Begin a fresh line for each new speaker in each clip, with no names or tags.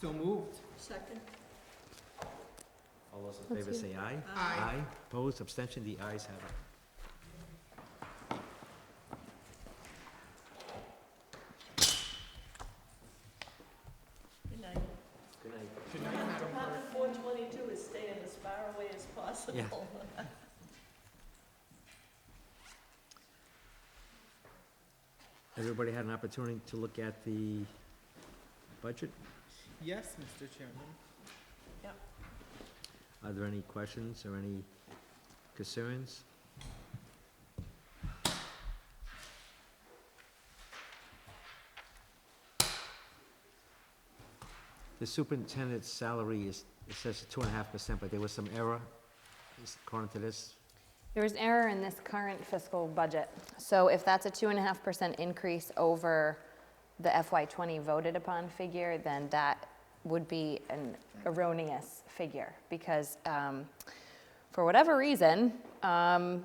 So moved.
Second?
All those in favor say aye.
Aye.
Opposed, abstention, the ayes have it.
Good night.
Good night.
Good night, Madam Clerk.
Apartment four twenty-two is staying as far away as possible.
Everybody had an opportunity to look at the budget?
Yes, Mr. Chairman.
Are there any questions or any concerns? The superintendent's salary is, it says two and a half percent, but there was some error is- according to this.
There was error in this current fiscal budget. So if that's a 2.5% increase over the FY20 voted upon figure, then that would be an erroneous figure because um, for whatever reason, um,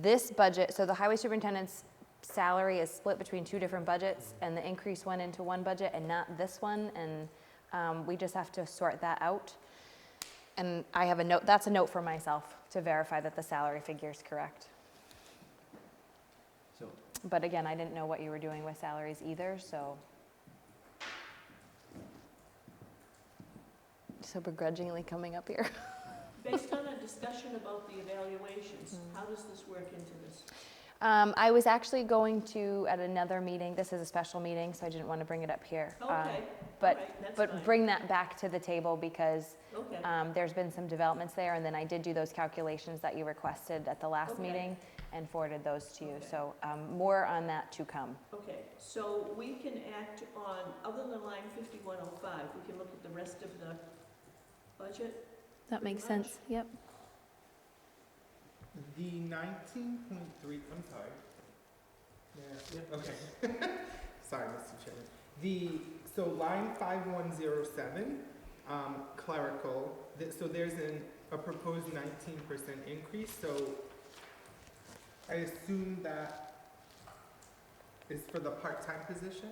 this budget, so the highway superintendent's salary is split between two different budgets and the increase went into one budget and not this one. And um, we just have to sort that out. And I have a note, that's a note for myself to verify that the salary figure is correct.
So
But again, I didn't know what you were doing with salaries either, so. So begrudgingly coming up here.
Based on a discussion about the evaluations,
Mm.
how does this work into this?
Um, I was actually going to, at another meeting, this is a special meeting, so I didn't want to bring it up here. um,
Okay, all right, that's fine.
But bring that back to the table because
Okay,
um, there's been some developments there. And then I did do those calculations that you requested at the last
Okay.
meeting and forwarded those to you.
Okay.
So um, more on that to come.
okay, so we can act on, other than line fifty-one oh five, we can look at the rest of the budget?
That
makes sense,
yep.
The nineteen point three, I'm sorry. Yeah, okay. Sorry, Mr. Chairman. The, so line five one zero seven, um, clerical, th- so there's an, a proposed nineteen percent increase, so I assume that is for the part-time position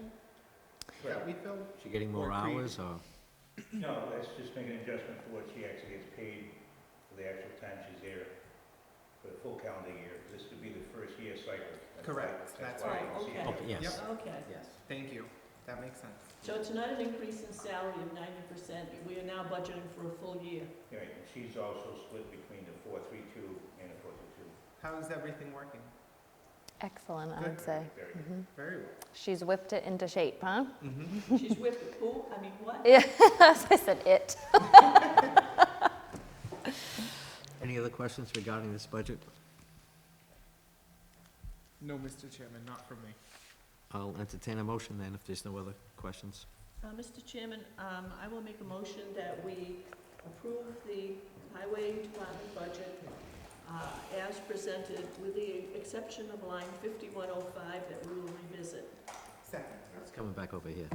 that we filled?
she getting more
Or creative.
hours or?
No, that's just making an adjustment for what she actually gets paid for the actual time she's there for the full calendar year. This would be the first year cycle. That's why-
Correct, that's
why
right.
you see it.
Okay.
Okay, yes.
Okay,
Yes.
Thank you, that makes sense.
so it's not an increase in salary of ninety percent, we are now budgeting for a full year.
Right, and she's also split between the four three two and the four two two.
How is everything working?
Excellent, I
Good.
would say.
Very good.
Mhm.
Very well.
She's whipped it into shape, huh?
Mm-hmm.
She's with the pool, I mean, what?
Yeah, I said it.
Any other questions regarding this budget?
No, Mr. Chairman, not for me.
I'll entertain a motion then if there's no other questions.
Uh, Mr. Chairman, um, I will make a motion that we approve the highway department budget uh, as presented, with the exception of line 5105 that we will revisit.
Second.
It's coming back over here.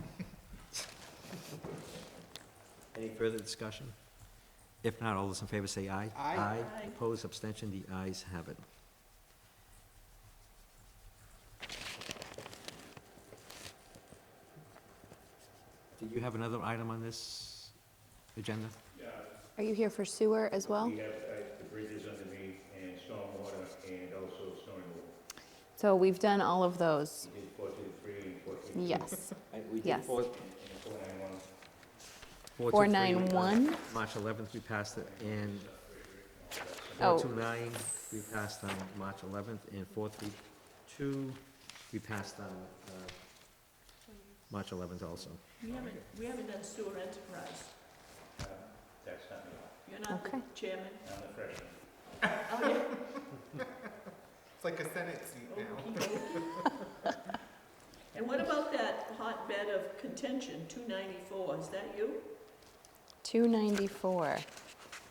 Any further discussion? If not, all those in favor say aye.
Aye.
Aye.
Opposed, abstention, the ayes have it. Did you have another item on this agenda?
Are you here for sewer as well?
We have uh, the bridges underneath and stormwater and also snow removal.
So we've done all of those.
We did four two three and four three two.
Yes.
We
did Yes. four-
And
Four
four nine one.
nine one.
March 11th, we passed it, and
Oh.
429, we passed on March 11th, and 432, we passed on uh, March 11th also.
We haven't, we haven't done sewer enterprise.
Uh, That's not me.
You're not the
Okay.
chairman.
I'm the freshman.
Oh, yeah.
It's like a Senate seat now.
Okey dokey. And what about that hotbed of contention, 294? Is that you?
294.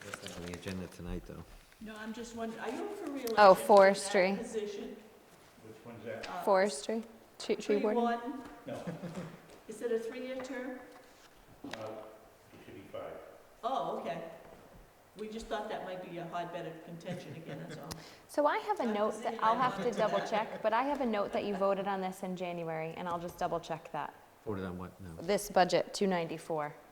That's not on the agenda tonight, though.
No, I'm just wondering, are you up for reelection?
Oh,
in that
forestry.
Position.
Which one's that?
Uh,
Forestry? Tree, tree warden?
No,
Is it a three-year term?
uh, it should be five.
Oh, okay. We just thought that might be a hotbed of contention again, that's all.
So I have a
I'm
note that
busy.
I'll have to double check, but I have a note that you voted on this in January, and I'll just double check that.
Voted on what? No.
This budget, 294.